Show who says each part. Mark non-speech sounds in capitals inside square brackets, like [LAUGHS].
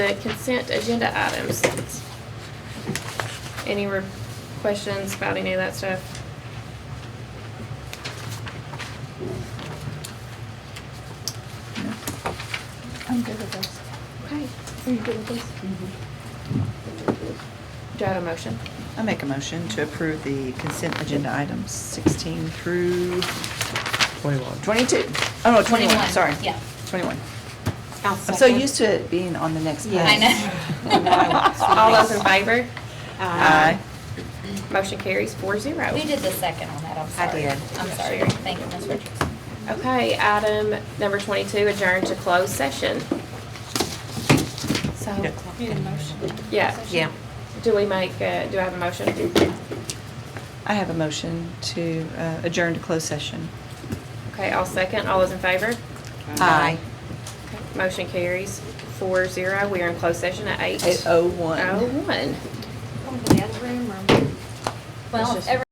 Speaker 1: the consent agenda items. Any re- questions about any of that stuff?
Speaker 2: I'm good with this.
Speaker 1: Okay,
Speaker 2: Are you good with this?
Speaker 1: do I have a motion?
Speaker 3: I make a motion to approve the consent agenda items 16 through
Speaker 4: Twenty-one.
Speaker 3: 22. Oh, no, 21,
Speaker 5: 21,
Speaker 3: sorry.
Speaker 5: yeah.
Speaker 3: 21.
Speaker 5: I'll
Speaker 3: I'm so
Speaker 5: second.
Speaker 3: used to it being on the next page.
Speaker 5: Yeah, I
Speaker 3: [LAUGHS]
Speaker 5: [LAUGHS] know.
Speaker 1: All those in favor?
Speaker 3: Aye.
Speaker 1: Motion carries four zero.
Speaker 5: Who did the second on that? I'm sorry.
Speaker 3: did.
Speaker 5: I'm sorry.
Speaker 1: Sherry.
Speaker 5: Thank you, Ms. Richardson.
Speaker 1: Okay, item number twenty-two, adjourn to closed session. So, yeah.
Speaker 6: Yeah.
Speaker 1: Do we make, uh, do I have a motion?
Speaker 3: I have a motion to uh, adjourn to closed session.
Speaker 1: Okay, I'll second. All those in favor?
Speaker 3: Aye.
Speaker 1: Motion carries four zero. We are in closed session at eight.
Speaker 5: Oh.
Speaker 3: 801.
Speaker 1: Oh, one.
Speaker 5: Well,
Speaker 1: just-
Speaker 5: every.